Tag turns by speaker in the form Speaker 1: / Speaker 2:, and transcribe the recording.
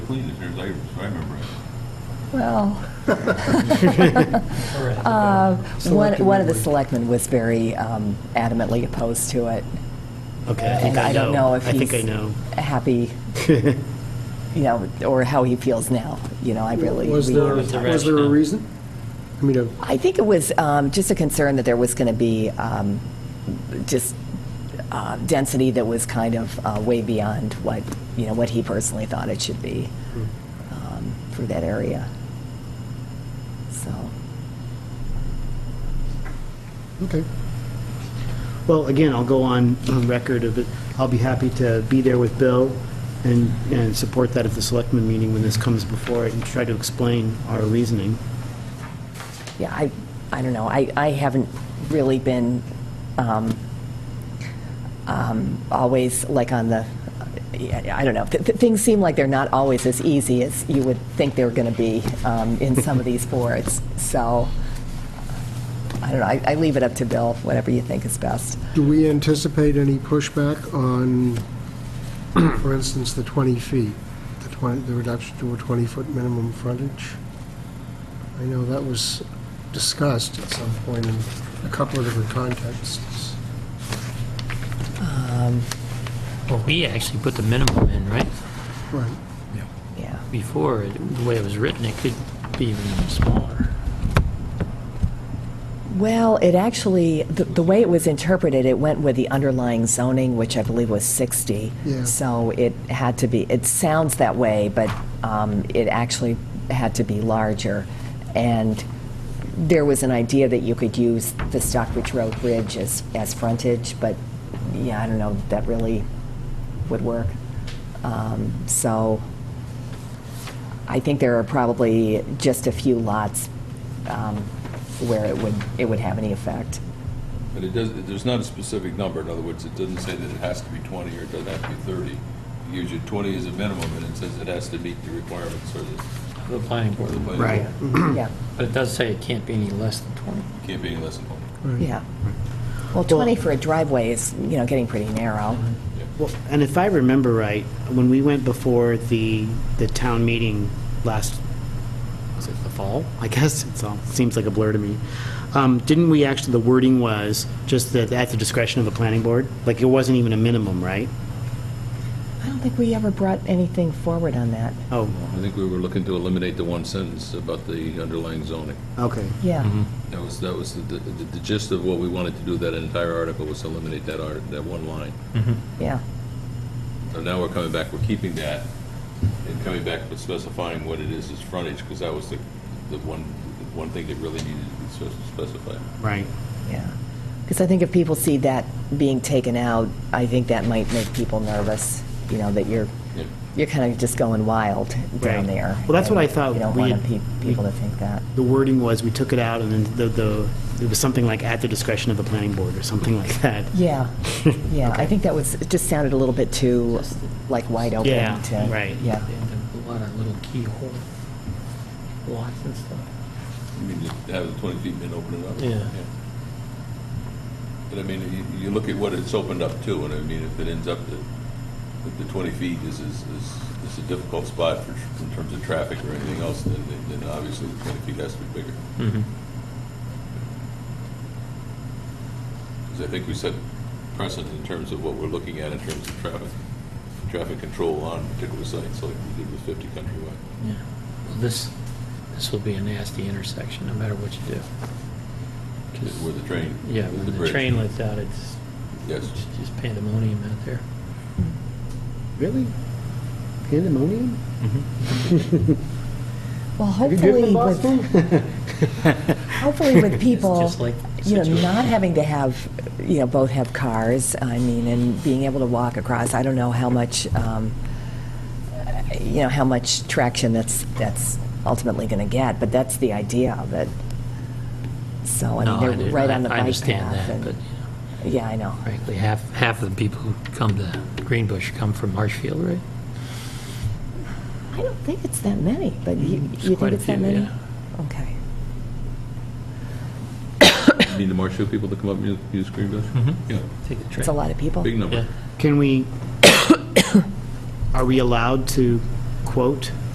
Speaker 1: clean as their labor, so I remember it.
Speaker 2: Well,
Speaker 3: Correct.
Speaker 2: uh, one
Speaker 4: Selectmen
Speaker 2: one of the
Speaker 4: would.
Speaker 2: selectmen was very um, adamantly opposed to it.
Speaker 3: Okay, I think
Speaker 2: And
Speaker 3: I know.
Speaker 2: I don't know if
Speaker 3: I think I
Speaker 2: he's
Speaker 3: know.
Speaker 2: happy, you know, or how he feels now, you know, I really.
Speaker 4: Was
Speaker 2: we-
Speaker 4: there,
Speaker 3: Was the
Speaker 4: was there a
Speaker 3: rationale?
Speaker 4: reason? I mean, a-
Speaker 2: I think it was um, just a concern that there was going to be um, just uh, density that was kind of uh, way beyond what, you know, what he personally thought it should be um, for that area. So,
Speaker 4: okay.
Speaker 3: Well, again, I'll go on on record of it. I'll be happy to be there with Bill and, and support that at the selectmen meeting when this comes before it and try to explain our reasoning.
Speaker 2: yeah, I, I don't know, I, I haven't really been um, um, always like on the, I don't know, Th- th- things seem like they're not always as easy as you would think they were going to be um, in some of these boards, so, I don't know, I I leave it up to Bill, whatever you think is best.
Speaker 4: Do we anticipate any pushback on, for instance, the 20 feet, the 20, the reduction to a 20-foot minimum frontage? I know that was discussed at some point in a couple of different contexts.
Speaker 2: Um,
Speaker 5: Well, we actually put the minimum in, right?
Speaker 4: Right.
Speaker 2: Yeah,
Speaker 5: Before, it- the way it was written, it could be even smaller.
Speaker 2: well, it actually, the the way it was interpreted, it went with the underlying zoning, which I believe was 60.
Speaker 4: Yeah.
Speaker 2: So it had to be, it sounds that way, but um, it actually had to be larger. And there was an idea that you could use the Stockbridge Road Bridge as, as frontage, but, yeah, I don't know, that really would work. Um, So I think there are probably just a few lots um, where it would, it would have any effect.
Speaker 1: But it does, there's not a specific number, in other words, it doesn't say that it has to be 20 or it doesn't have to be 30. It gives you 20 as a minimum, and it says it has to meet the requirements or the,
Speaker 5: The planning
Speaker 1: or
Speaker 5: board.
Speaker 1: the plan.
Speaker 3: Right.
Speaker 2: Yeah,
Speaker 5: But it does say it can't be any less than 20.
Speaker 1: Can't be any less than 20.
Speaker 2: yeah. Well, 20 for a driveway is, you know, getting pretty narrow.
Speaker 3: Well, and if I remember right, when we went before the, the town meeting last, was it the fall? I guess it's all, seems like a blur to me. Um, Didn't we actually, the wording was just that at the discretion of the planning board? Like, it wasn't even a minimum, right?
Speaker 2: I don't think we ever brought anything forward on that.
Speaker 3: Oh,
Speaker 1: I think we were looking to eliminate the one sentence about the underlying zoning.
Speaker 3: okay.
Speaker 2: Yeah,
Speaker 3: Mm-hmm.
Speaker 1: That was, that was the, the the gist of what we wanted to do, that entire article was eliminate that art, that one line.
Speaker 2: yeah.
Speaker 1: So now we're coming back, we're keeping that, and coming back with specifying what it is as frontage, because that was the, the one, the one thing that really needed to be spec- specified.
Speaker 3: Right.
Speaker 2: Yeah. Because I think if people see that being taken out, I think that might make people nervous, you know, that you're,
Speaker 1: Yeah.
Speaker 2: you're kind of just going wild down
Speaker 3: Right.
Speaker 2: there.
Speaker 3: Well, that's what I
Speaker 2: And
Speaker 3: thought
Speaker 2: You don't
Speaker 3: we
Speaker 2: want
Speaker 3: had-
Speaker 2: pe- people to think that.
Speaker 3: The wording was, we took it out, and then the, the, it was something like at the discretion of the planning board, or something like that.
Speaker 2: Yeah, yeah, I think that was, it just sounded a little bit too, like, wide open.
Speaker 3: Yeah,
Speaker 2: to-
Speaker 3: right.
Speaker 2: Yeah,
Speaker 5: They had a lot of little keyhole lots and stuff.
Speaker 1: I mean, just have the 20 feet and open it up.
Speaker 5: Yeah.
Speaker 1: But I mean, you, you look at what it's opened up to, and I mean, if it ends up that, that the 20 feet is, is, is- is a difficult spot for, tr- in terms of traffic or anything else, then, then obviously the 20 feet has to be bigger. Because I think we set precedent in terms of what we're looking at in terms of traffic, traffic control on particular sites, like we did with 50 Countryway.
Speaker 5: Yeah. Well, This, this will be a nasty intersection, no matter what you do. 'Cause-
Speaker 1: Where the train.
Speaker 5: Yeah,
Speaker 1: with
Speaker 5: when the
Speaker 1: bridge.
Speaker 5: train lets out, it's
Speaker 1: Yes.
Speaker 5: it's just pandemonium out there.
Speaker 3: Really? Pandemonium?
Speaker 2: well,
Speaker 3: Have you driven
Speaker 2: hopefully
Speaker 3: in
Speaker 2: with,
Speaker 3: Boston?
Speaker 2: hopefully with people,
Speaker 5: just like
Speaker 2: you know, not
Speaker 5: situation.
Speaker 2: having to have, you know, both have cars, I mean, and being able to walk across, I don't know how much, um, you know, how much traction that's, that's ultimately going to get, but that's the idea of it. So, I
Speaker 5: No,
Speaker 2: mean,
Speaker 5: do-
Speaker 2: they're right
Speaker 5: I-
Speaker 2: on the bike path.
Speaker 5: I understand that,
Speaker 2: and-
Speaker 5: but you know,
Speaker 2: Yeah, I know.
Speaker 5: frankly, half, half of the people who come to Greenbush come from Marshfield, right?
Speaker 2: I don't think it's that many, but you,
Speaker 5: It's
Speaker 2: you
Speaker 5: quite
Speaker 2: think
Speaker 5: a
Speaker 2: it's that
Speaker 5: few,
Speaker 2: many?
Speaker 5: yeah.
Speaker 2: Okay.
Speaker 1: You mean the Marshfield people that come up and use- use Greenbush? Mm-hmm. Yeah,
Speaker 5: Take the train.
Speaker 2: It's a lot of people.
Speaker 1: big
Speaker 5: Yeah.
Speaker 1: number.
Speaker 3: Can we, are we allowed to quote